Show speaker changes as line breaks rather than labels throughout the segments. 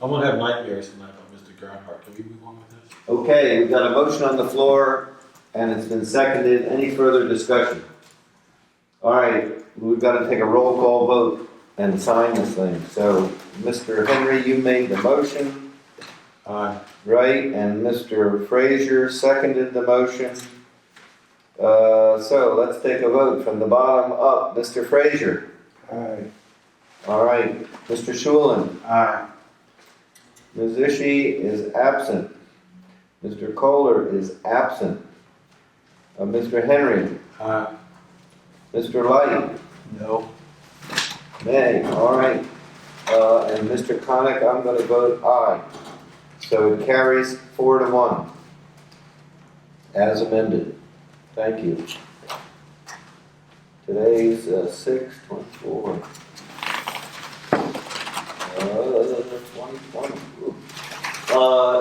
I'm gonna have nightmares tonight about Mr. Gerhart. Can we move on with this?
Okay, we've got a motion on the floor, and it's been seconded. Any further discussion? All right, we've got to take a roll call vote and sign this thing. So, Mr. Henry, you made the motion,
Aye.
right? And Mr. Frazier seconded the motion. Uh, So, let's take a vote from the bottom up. Mr. Frazier?
Aye.
All right. Mr. Shulin?
Aye.
Ms. Ishi is absent. Mr. Kohler is absent. Uh, Mr. Henry,
Aye.
Mr. Light,
No.
nay, all right. Uh, and Mr. Conick, I'm gonna vote aye. So it carries four to one. As amended. Thank you. Today's, uh, six twenty-four. Uh, twenty-one. Uh,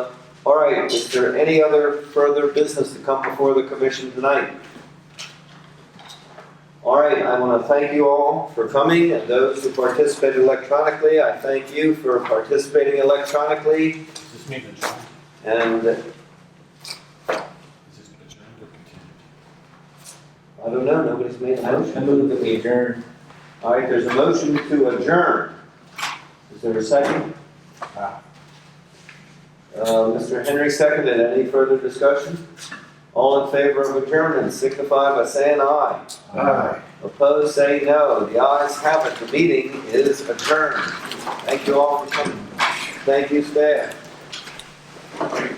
all right, is there any other further business to come before the commission tonight? All right, I want to thank you all for coming and those who participated electronically. I thank you for participating electronically
Is this meeting adjourned?
and
Is this adjourned or continued?
I don't know, nobody's made a
I
motion.
move that we adjourn.
All right, there's a motion to adjourn. Is there a second?
Ah.
Aye.
Uh, Mr. Henry seconded. Any further discussion? All in favor of adjournment signify by saying aye. Opposed, say no. The ayes have it. The meeting is adjourned. Thank you all for coming. Thank you, staff.